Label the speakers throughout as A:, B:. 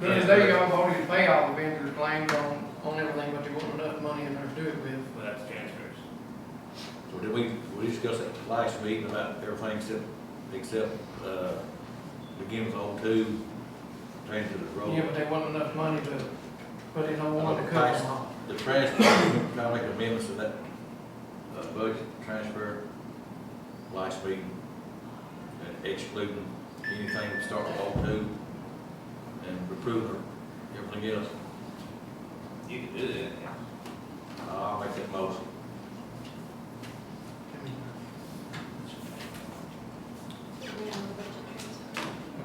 A: Because they y'all voted to pay all the vendors' claims on, on everything, but there wasn't enough money in there to do it with.
B: Well, that's transfers.
C: So did we, we discussed at last meeting about everything except, except, uh, begin with O two, transit of road.
A: Yeah, but there wasn't enough money to put in on one to cover them all.
C: The transfer, trying to make amendments to that, uh, budget transfer, last meeting, and excluding anything that starts with O two, and approving everything else.
B: You can do that.
C: I'll make that motion.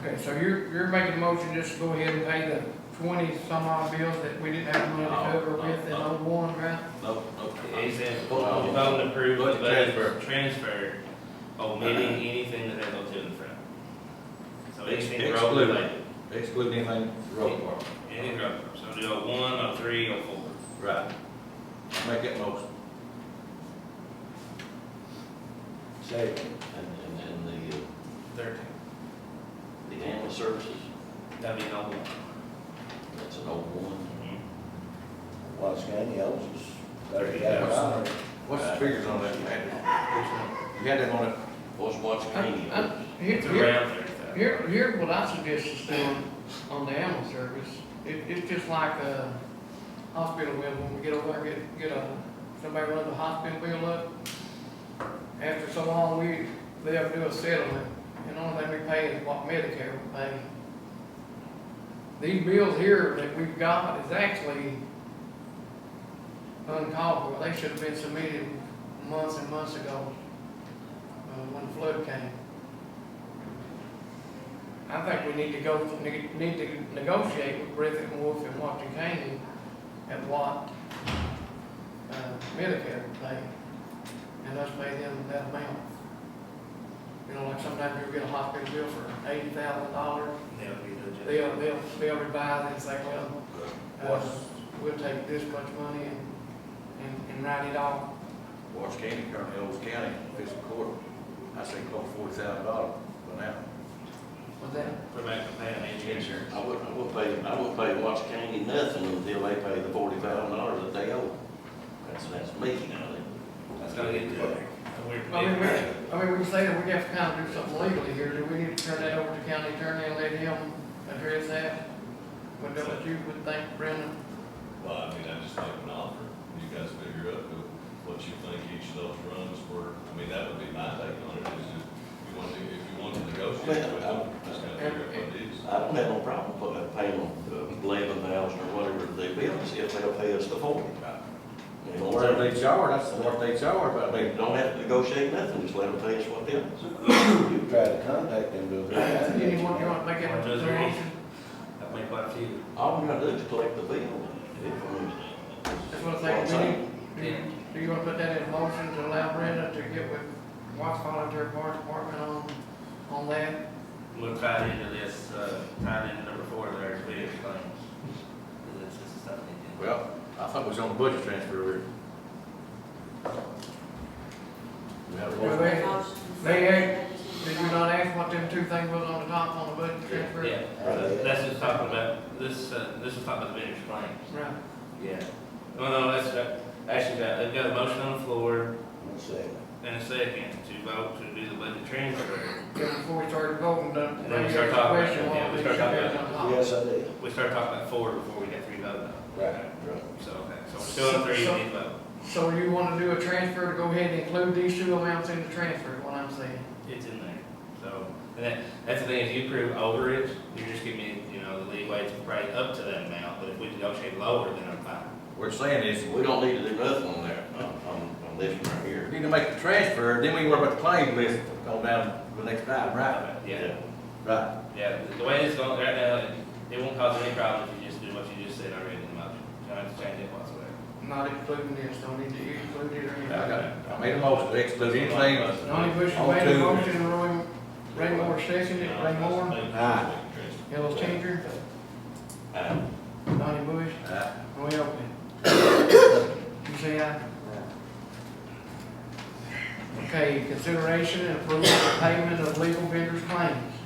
A: Okay, so you're, you're making a motion just to go ahead and pay the twenty some odd bills that we didn't have money to cover with in oh one, right?
C: No, no.
B: He said,
C: Vote on it.
B: vote and approve the
C: Budget
B: budget transfer, Uh-huh. omitting anything that has O two in the front. So anything road
C: Excluded.
B: related,
C: Excluding anything road department.
B: anything road, so do O one, O three, O four.
C: Right. Make that motion.
D: Second. And, and, and the, uh,
B: Thirteen.
D: the animal services,
B: That'd be O one.
D: that's an old one.
E: What's County owes us thirty
B: Yeah,
E: thousand
C: what's-
E: dollars.
C: What's the figures on that, Andy? You had that on it,
D: What's Watts County?
A: Uh, uh, Here,
B: It's
A: here,
B: around thirty thousand.
A: here, here what I suggest is doing on the animal service, it, it's just like a hospital bill, when we get over, there, get, get a, somebody runs a hospital bill up. After so long, we, they have to do a settlement, and the only thing we pay is what Medicare will pay. These bills here that we've got is actually uncalled for, they should have been submitted months and months ago, uh, when the flood came. I think we need to go, ne- need to negotiate with Griffith and Wolf and Washington County at what, uh, Medicare would pay, and us pay them that amount. You know, like sometimes you'll get a hospital bill for eighty thousand dollars,
B: That would be the.
A: they'll, they'll, they'll revise it and say, well, uh,
C: What's-
A: we'll take this much money and, and, and write it off.
C: Watts County, currently Owens County, fiscal court, I say close forty thousand dollars for now.
A: Was that,
B: Put back the pay on any insurance.
D: I wouldn't, I wouldn't pay, I wouldn't pay Watts County nothing until they pay the forty thousand dollars that they owe. That's, that's me now,
B: That's gonna get to it. Oh, We're-
A: I mean, we, I mean, we say that we have to kind of do something legally here, do we need to turn that over to county attorney and let him address that? Would that what you would think, Brendan?
F: Well, I mean, I just make an offer, you guys figure out who- what you think each of those runs were, I mean, that would be my take on it, is if you want to, if you want to negotiate with them, just kind of figure out what it is.
D: I don't have no problem putting, paying them uh, eleven thousand or whatever they bill us, if they'll pay us the forty. You know,
C: Whatever they charge, that's what they charge, but I
D: They
C: mean,
D: don't have to negotiate nothing, just let them pay us what they owe.
E: You try to contact them, do they?
A: Anyone, you want to make
B: Or
A: that
B: does it-
A: determination?
B: I've made quite a few.
D: All we gotta do is collect the bill. If,
A: That's what I think, we need, do you want to put that in motion to allow Brenda to get with Watts Volunteer Fire Department on, on that?
B: We'll tie it into this, uh, tie it into number four, there's big claims. Cause it's just stuff they did.
C: well, I thought it was on the budget transfer here. We have a
A: Well,
C: motion.
A: they- they Did you not ask what them two things was on the top on the budget transfer?
B: Yeah,
E: Right.
B: that's just talking about, this, uh, this is talking about the vendor's claims.
A: Right,
B: Yeah. No, no, that's, uh, actually, that, they've got a motion on the floor
E: Let's see.
B: and a second to vote to do the budget transfer.
A: Yeah, before we started voting, don't,
B: Then we
A: raise
B: start
A: the
B: talking about
A: question,
B: it, yeah,
A: what
B: we
A: we
B: start
A: should have
B: talking
A: done
B: about
A: on top.
E: Yes, I did.
B: We started talking about four before we got three voted on.
E: Right, right.
B: So, okay, so we're still on three, we need to vote.
A: So you wanna do a transfer to go ahead and include these two amounts in the transfer, is what I'm saying?
B: It's in there, so, and that, that's the thing, if you prove over it, you're just giving me, you know, the leeway to probably up to that amount, but if we negotiate lower, then I'm fine.
C: We're saying is,
D: we don't need to do nothing on there, on, on, on this one right
C: we
D: here.
C: need to make the transfer, then we can worry about the claim list, go down to the next item, right?
B: Yeah,
C: Right.
B: yeah, the way it's going right now, it- it won't cause any problem if you just do what you just said already in the motion, you don't have to change it whatsoever.
A: Not including this, don't need to include it or
C: I
A: anything.
C: got it. I made a motion to exclude anything.
A: Donnie Bush
C: All
A: made a
C: two.
A: motion, Roy, Ray Moore seconded it, Ray Moore,
C: Aye.
A: Ellis Changer,
D: Uh,
A: Donnie Bush,
C: Right.
A: Roy Elphie. You say aye? Okay, consideration and approval of payment of legal vendor's claims.